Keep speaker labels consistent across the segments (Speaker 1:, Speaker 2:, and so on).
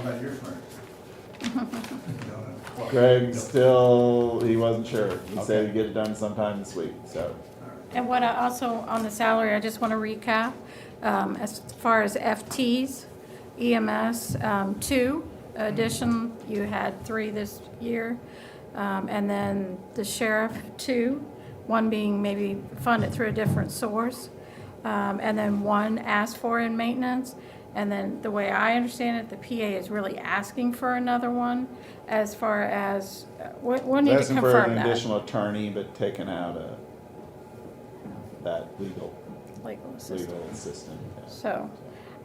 Speaker 1: about your furniture. You know, that's what-
Speaker 2: Greg still, he wasn't sure. He said he'd get it done sometime this week, so.
Speaker 3: And what I also, on the salary, I just want to recap, um, as far as FTs, EMS, um, two addition, you had three this year, um, and then the sheriff, two, one being maybe funded through a different source, um, and then one asked for in maintenance, and then the way I understand it, the PA is really asking for another one as far as, uh, we'll we'll need to
Speaker 2: Asking for
Speaker 3: confirm
Speaker 2: an
Speaker 3: that.
Speaker 2: additional attorney, but taking out a, that legal,
Speaker 3: Legal assistance.
Speaker 2: legal assistant.
Speaker 3: So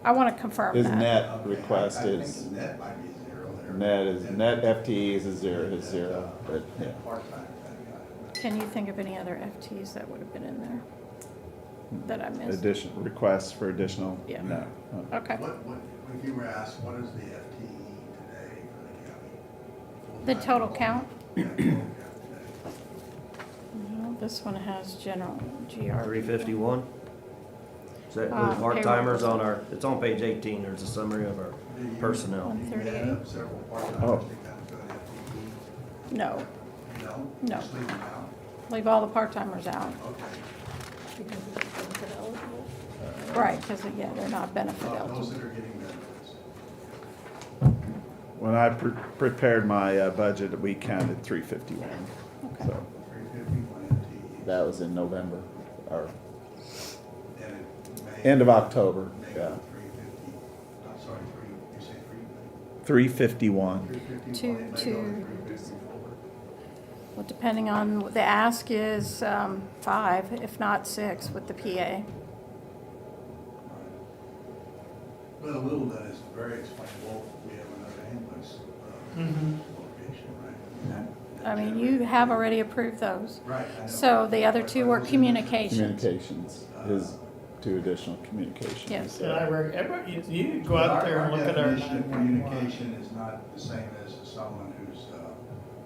Speaker 3: I want to confirm
Speaker 2: His
Speaker 3: that.
Speaker 2: net
Speaker 1: Okay,
Speaker 2: request
Speaker 1: I- I
Speaker 2: is,
Speaker 1: think net might be zero there.
Speaker 2: net is, net FTEs is zero, is zero, but yeah.
Speaker 1: Part-time.
Speaker 3: Can you think of any other FTs that would have been in there that I missed?
Speaker 2: Addition, requests for additional?
Speaker 3: Yeah.
Speaker 2: No.
Speaker 3: Okay.
Speaker 1: What, what, if you were asked, what is the FTE today for the county?
Speaker 3: The total count?
Speaker 1: Yeah, total count today.
Speaker 3: No, this one has general
Speaker 4: Three
Speaker 3: GR.
Speaker 4: fifty-one? Is that
Speaker 3: Uh,
Speaker 4: the part-timers on our, it's on page eighteen, there's a summary of our
Speaker 1: Do you-
Speaker 4: personnel.
Speaker 1: You add up several part-timers
Speaker 2: Oh.
Speaker 1: to come to an FTE,
Speaker 3: No,
Speaker 1: no?
Speaker 3: No.
Speaker 1: Just leave them out,
Speaker 3: leave all the part-timers out.
Speaker 1: okay.
Speaker 3: Right, because, yeah, they're not benefit
Speaker 5: Oh,
Speaker 1: Uh,
Speaker 3: eligible.
Speaker 1: Those that are getting benefits.
Speaker 2: When I pre- prepared my uh, budget, we counted three fifty-one,
Speaker 3: Okay.
Speaker 2: so.
Speaker 1: Three fifty-one
Speaker 2: That was in November, or
Speaker 1: FTE. And it may
Speaker 2: end of October,
Speaker 1: make
Speaker 2: yeah.
Speaker 1: it three fifty, I'm sorry, three, you say three?
Speaker 2: Three fifty-one.
Speaker 1: Three fifty-one.
Speaker 3: Two-
Speaker 1: it may go to
Speaker 3: two.
Speaker 1: three fifty-four.
Speaker 3: Well, depending on, what the ask is um, five, if not six, with the PA.
Speaker 1: Right. But a little bit is very explainable, we have another ambulance uh,
Speaker 6: Mm-hmm.
Speaker 1: location, right?
Speaker 3: Hmm. I mean, you have already approved those.
Speaker 1: Right, I know.
Speaker 3: So the other two were communications.
Speaker 2: Communications, his two additional communications.
Speaker 3: Yes.
Speaker 6: And I rec, everybody, you- you go
Speaker 1: But
Speaker 6: out
Speaker 1: our-
Speaker 6: there and look at our
Speaker 1: Our definition of
Speaker 6: 911.
Speaker 1: communication is not the same as someone who's uh,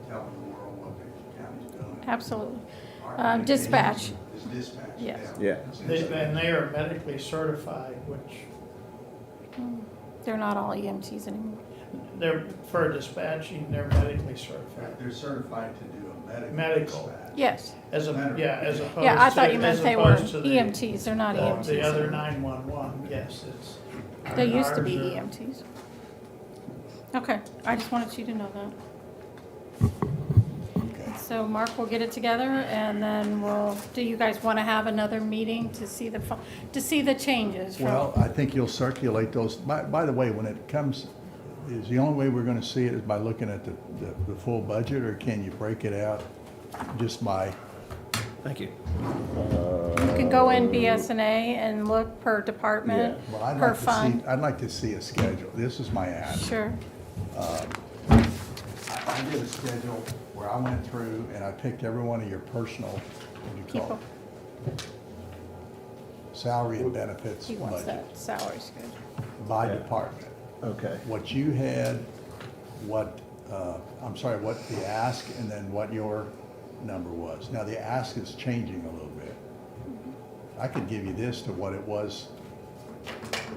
Speaker 1: telling the world what the county's doing.
Speaker 3: Absolutely.
Speaker 1: Our
Speaker 3: Uh,
Speaker 1: communication
Speaker 3: dispatch.
Speaker 1: Is dispatch.
Speaker 3: Yes.
Speaker 2: Yeah.
Speaker 6: They- And they are medically certified, which
Speaker 3: Hmm. They're not all EMTs anymore.
Speaker 6: they're, for dispatching, they're medically certified.
Speaker 1: They're certified to do a medical.
Speaker 6: Medical.
Speaker 1: dispatch.
Speaker 3: Yes.
Speaker 6: As a,
Speaker 1: Matter-
Speaker 6: yeah, as opposed to.
Speaker 3: Yeah, I thought you meant
Speaker 6: Oh, as
Speaker 3: they were
Speaker 6: opposed to the- uh,
Speaker 3: EMTs, they're not E
Speaker 1: Well,
Speaker 3: EMTs.
Speaker 6: The other nine-one-one, yes, it's. Uh,
Speaker 3: They used to be E
Speaker 6: ours are-
Speaker 3: EMTs. Okay, I just wanted you to know that. So Mark will get it together and then we'll, do you guys want to have another meeting to see the, fi- to see the changes? from-
Speaker 5: Well, I think you'll circulate those. By, by the way, when it comes, is the only way we're gonna see it is by looking at the, the, the full budget, or can you break it out just by?
Speaker 4: Thank you.
Speaker 3: You can go in BSNA and look per department,
Speaker 5: Well, I'd
Speaker 3: per
Speaker 5: like to
Speaker 3: fund.
Speaker 5: see. I'd like to see a schedule. This is my ask.
Speaker 3: Sure,
Speaker 5: I I did a schedule where I went through and I picked every one of your personal, what do you call
Speaker 3: people,
Speaker 5: it? Salary and benefits
Speaker 3: he wants
Speaker 5: budget
Speaker 3: that salary schedule.
Speaker 5: by
Speaker 2: Yeah.
Speaker 5: department.
Speaker 2: Okay.
Speaker 5: What you had, what, uh, I'm sorry, what the ask and then what your number was. Now, the ask is changing a little bit. I could give you this to what it was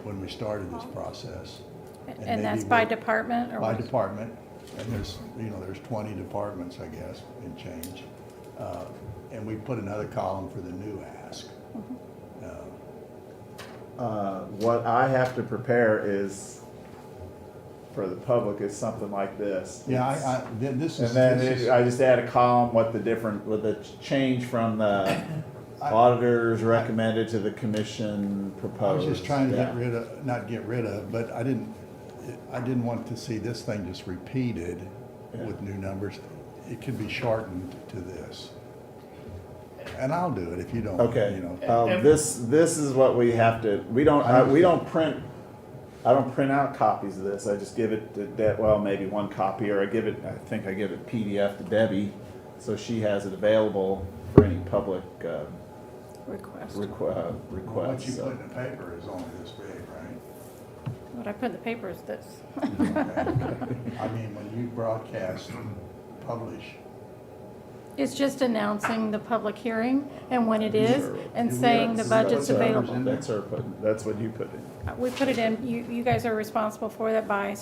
Speaker 5: when we started this process.
Speaker 3: And that's
Speaker 5: maybe
Speaker 3: by
Speaker 5: work-
Speaker 3: department or
Speaker 5: By
Speaker 3: what?
Speaker 5: department, and there's, you know, there's twenty departments, I guess, and change. Uh, And we put another column for the new ask. Uh,
Speaker 2: Uh, what I have to prepare is, for the public, is something like this.
Speaker 5: Yeah, I, I, th- this
Speaker 2: And
Speaker 5: is.
Speaker 2: then
Speaker 5: this is-
Speaker 2: it- I just add a column, what the different, what the change from the
Speaker 5: I-
Speaker 2: auditors recommended to the commission
Speaker 5: I
Speaker 2: proposed.
Speaker 5: was just trying to get
Speaker 2: Yeah.
Speaker 5: rid of, not get rid of, but I didn't, I didn't want to see this thing just repeated with new numbers. It could be shortened to this. And I'll do it if you don't, you
Speaker 2: Okay,
Speaker 5: know.
Speaker 2: um, this, this is what we have to, we don't, I, we don't print, I don't print out copies of this, I just give it to Deb, well, maybe one copy, or I give it, I think I give it PDF to Debbie, so she has it available for any public, uh,
Speaker 3: Request.
Speaker 2: requ- uh,
Speaker 1: What you
Speaker 2: requests.
Speaker 1: put
Speaker 2: so.
Speaker 1: in the paper is only this big, right?
Speaker 3: What I put in the paper is this.
Speaker 5: I mean, when you broadcast, publish,
Speaker 3: It's just announcing the public hearing and when it is and
Speaker 5: Do we
Speaker 3: saying
Speaker 5: have-
Speaker 3: the
Speaker 5: is that
Speaker 3: budget's
Speaker 5: what's ours
Speaker 3: available.
Speaker 5: in
Speaker 2: That's her putting, that's what you put in.
Speaker 3: We put it in, you, you guys are responsible for that by